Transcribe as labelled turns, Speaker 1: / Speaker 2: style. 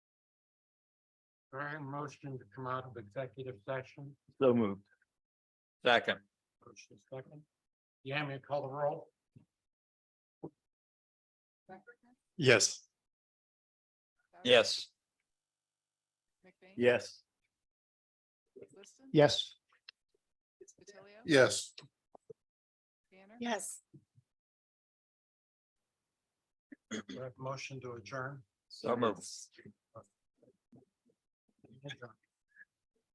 Speaker 1: All right, motion to come out of executive session,
Speaker 2: So moved.
Speaker 3: Second,
Speaker 1: motion second. Yeah, may I call the roll?
Speaker 2: Yes.
Speaker 3: yes,
Speaker 4: McBane?
Speaker 2: Yes.
Speaker 4: Liston?
Speaker 1: Yes.
Speaker 4: D'Atilio?
Speaker 2: Yes.
Speaker 4: Banner?
Speaker 5: Yes.
Speaker 1: Motion to adjourn.
Speaker 3: so moved.